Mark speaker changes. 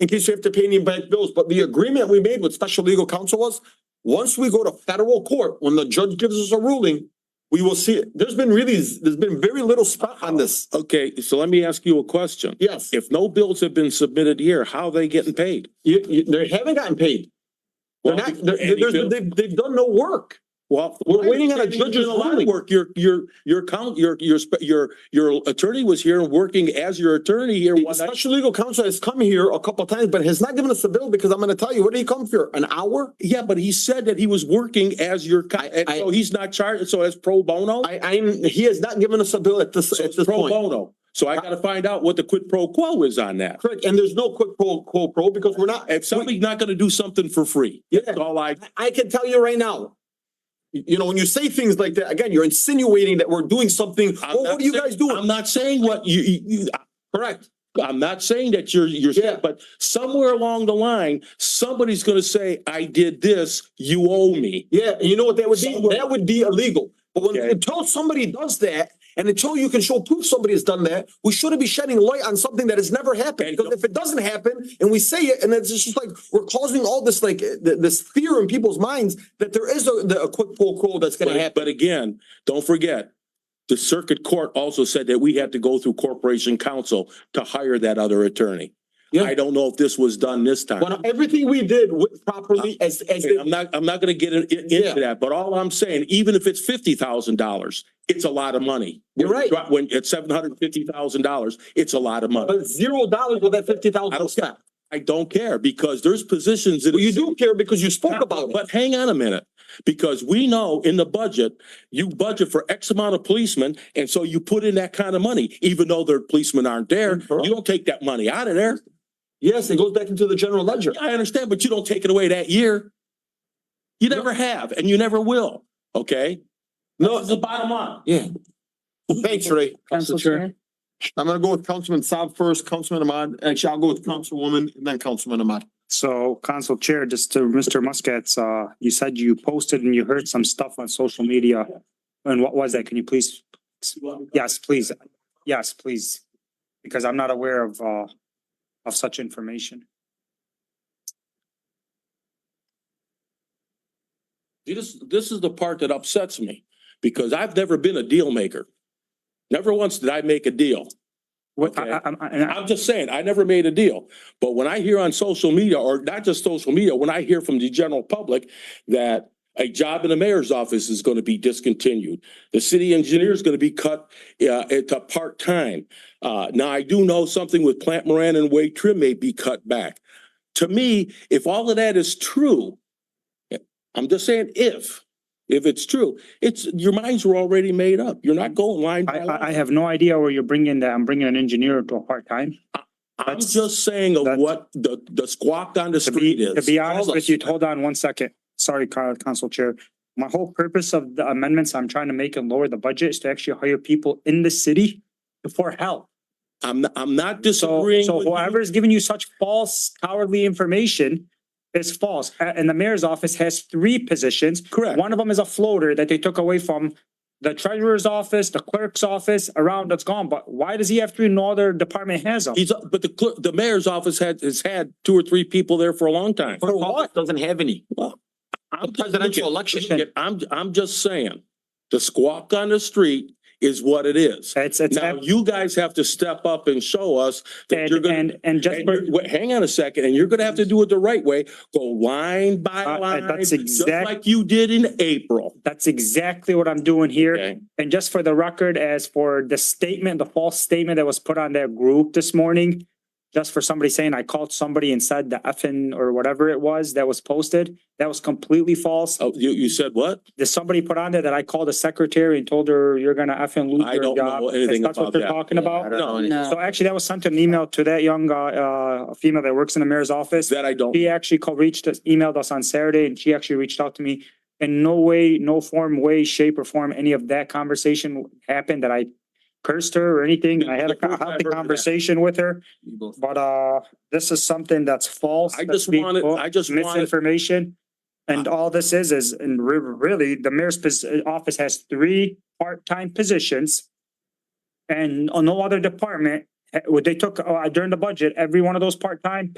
Speaker 1: in case you have to pay any back bills. But the agreement we made with special legal counsel was, once we go to federal court, when the judge gives us a ruling, we will see it. There's been really, there's been very little spot on this.
Speaker 2: Okay, so let me ask you a question.
Speaker 1: Yes,
Speaker 2: If no bills have been submitted here, how are they getting paid?
Speaker 1: you, you, they haven't gotten paid. They're
Speaker 2: Well,
Speaker 1: not, they're,
Speaker 2: any
Speaker 1: there's-
Speaker 2: bill-
Speaker 1: they've, they've done no work.
Speaker 2: Well.
Speaker 1: We're waiting on a
Speaker 2: you've done
Speaker 1: judge's
Speaker 2: a lot of
Speaker 1: ruling.
Speaker 2: Work, your, your, your count, your, your, spe- your, your attorney was here and working as your attorney here.
Speaker 1: The
Speaker 2: one night.
Speaker 1: special legal counsel has come here a couple times, but has not given us a bill because I'm gonna tell you, what did he come for? An hour?
Speaker 2: Yeah, but he said that he was working as your, co- and
Speaker 1: I-
Speaker 2: so he's not charged, so that's pro bono?
Speaker 1: I, I'm, he has not given us a bill at this,
Speaker 2: So
Speaker 1: at
Speaker 2: it's
Speaker 1: this
Speaker 2: pro
Speaker 1: point.
Speaker 2: bono. So I gotta find out what the quid pro quo is on that.
Speaker 1: Correct, and there's no quick pro, quo pro because we're not,
Speaker 2: If somebody's not gonna do something for free,
Speaker 1: yeah,
Speaker 2: that's all I,
Speaker 1: I can tell you right now. You you know, when you say things like that, again, you're insinuating that we're doing something,
Speaker 2: I'm
Speaker 1: well,
Speaker 2: not
Speaker 1: what are you
Speaker 2: saying-
Speaker 1: guys doing?
Speaker 2: I'm not saying what you, you, you-
Speaker 1: Correct,
Speaker 2: I'm not saying that you're, you're,
Speaker 1: Yeah.
Speaker 2: but somewhere along the line, somebody's gonna say, I did this, you owe me.
Speaker 1: yeah, and you know what that would be?
Speaker 2: Somewhere.
Speaker 1: That would be illegal. But when,
Speaker 2: Okay.
Speaker 1: until somebody does that, and until you can show proof somebody has done that, we shouldn't be shedding light on something that has never happened.
Speaker 2: And-
Speaker 1: Because if it doesn't happen, and we say it, and it's just like, we're causing all this, like, eh, th- this fear in people's minds that there is a, the- a quick pro quo that's gonna
Speaker 2: But,
Speaker 1: happen.
Speaker 2: but again, don't forget, the circuit court also said that we had to go through corporation counsel to hire that other attorney.
Speaker 1: Yeah.
Speaker 2: I don't know if this was done this time.
Speaker 1: When everything we did with properly as, as.
Speaker 2: Uh, Okay, I'm not, I'm not gonna get in- in-
Speaker 1: Yeah.
Speaker 2: into that, but all I'm saying, even if it's fifty thousand dollars, it's a lot of money.
Speaker 1: You're right.
Speaker 2: When it's seven hundred and fifty thousand dollars, it's a lot of money.
Speaker 1: But zero dollars with that fifty thousand.
Speaker 2: I don't care. I don't care because there's positions that.
Speaker 1: Well, you do care because you spoke about it.
Speaker 2: But hang on a minute, because we know in the budget, you budget for X amount of policemen, and so you put in that kind of money, even though their policemen aren't there.
Speaker 1: Correct.
Speaker 2: You don't take that money out of there.
Speaker 1: Yes, it goes back into the general ledger.
Speaker 2: I understand, but you don't take it away that year. You never have, and you never will, okay?
Speaker 1: No,
Speaker 2: That's the bottom line.
Speaker 1: yeah. Thanks, Ray.
Speaker 3: Council Chair.
Speaker 1: I'm gonna go with Councilman Saab first, Councilman Ahmad. Actually, I'll go with Councilwoman and then Councilman Ahmad.
Speaker 4: So, Council Chair, just to Mr. Muscat's, uh, you said you posted and you heard some stuff on social media. And what was that? Can you please? Yes, please. Yes, please. Because I'm not aware of, uh, of such information.
Speaker 2: This, this is the part that upsets me, because I've never been a deal maker. Never once did I make a deal.
Speaker 4: What, I, I, I'm- I, and I-
Speaker 2: I'm just saying, I never made a deal. But when I hear on social media, or not just social media, when I hear from the general public that a job in the mayor's office is going to be discontinued, the city engineer is going to be cut uh, into part-time. Uh, Now, I do know something with Plant Moran and Wade Trim may be cut back. To me, if all of that is true, I'm just saying if, if it's true, it's, your minds were already made up. You're not going line
Speaker 4: I,
Speaker 2: by line.
Speaker 4: I, I have no idea where you're bringing that. I'm bringing an engineer to a part-time.
Speaker 2: I'm
Speaker 4: That's-
Speaker 2: just saying of
Speaker 4: that's-
Speaker 2: what the, the squawk on the
Speaker 4: To be,
Speaker 2: street
Speaker 4: to
Speaker 2: is.
Speaker 4: be honest
Speaker 2: All
Speaker 4: with
Speaker 2: of-
Speaker 4: you, hold on one second. Sorry, Coun- Council Chair. My whole purpose of the amendments I'm trying to make and lower the budget is to actually hire people in the city for help.
Speaker 2: I'm, not- I'm not
Speaker 4: So,
Speaker 2: disagreeing.
Speaker 4: so
Speaker 2: with you.
Speaker 4: whoever is giving you such false cowardly information is false. A- And the mayor's office has three positions.
Speaker 2: Correct.
Speaker 4: One of them is a floater that they took away from the treasurer's office, the clerk's office, around that's gone. But why does he have three? No other department has them.
Speaker 2: He's, but the, clerk- the mayor's office had, has had two or three people there for a long time.
Speaker 1: For what? Doesn't have any.
Speaker 2: I'm just
Speaker 1: Presidential
Speaker 2: looking-
Speaker 1: election.
Speaker 2: I'm, I'm just saying, the squawk on the street is what it is.
Speaker 4: It's, it's,
Speaker 2: Now,
Speaker 4: and,
Speaker 2: you guys have to step up and show us that you're gonna,
Speaker 4: and, and just,
Speaker 2: and
Speaker 4: for-
Speaker 2: you're- wait, hang on a second, and you're gonna have to do it the right way, go line by
Speaker 4: Uh, uh,
Speaker 2: line.
Speaker 4: that's
Speaker 2: just
Speaker 4: exact-
Speaker 2: Like you did in April.
Speaker 4: that's exactly what I'm doing here.
Speaker 2: Okay.
Speaker 4: And just for the record, as for the statement, the false statement that was put on that group this morning, just for somebody saying I called somebody and said the effing or whatever it was that was posted, that was completely false.
Speaker 2: Oh, you, you said what?
Speaker 4: There's somebody put on there that I called the secretary and told her you're gonna effing lose
Speaker 2: I
Speaker 4: your
Speaker 2: don't know
Speaker 4: job.
Speaker 2: anything
Speaker 4: That's
Speaker 2: about
Speaker 4: what they're
Speaker 2: that.
Speaker 4: talking about.
Speaker 2: No,
Speaker 3: No.
Speaker 4: So actually, that was sent an email to that young uh, uh, female that works in the mayor's office.
Speaker 2: that I don't.
Speaker 4: She actually called, reached us, emailed us on Saturday and she actually reached out to me. In no way, no form, way, shape or form, any of that conversation happened that I cursed her or anything. I had
Speaker 2: The
Speaker 4: a
Speaker 2: first I've heard
Speaker 4: healthy
Speaker 2: of that.
Speaker 4: conversation with her, but uh, this is something that's false.
Speaker 2: I
Speaker 4: that's
Speaker 2: just wanted,
Speaker 4: being-
Speaker 2: I just wanted,
Speaker 4: Misinformation. And all this is, is, and re- really, the mayor's pos- office has three part-time positions. uh, And on no other department, eh, what they took uh, during the budget, every one of those part-time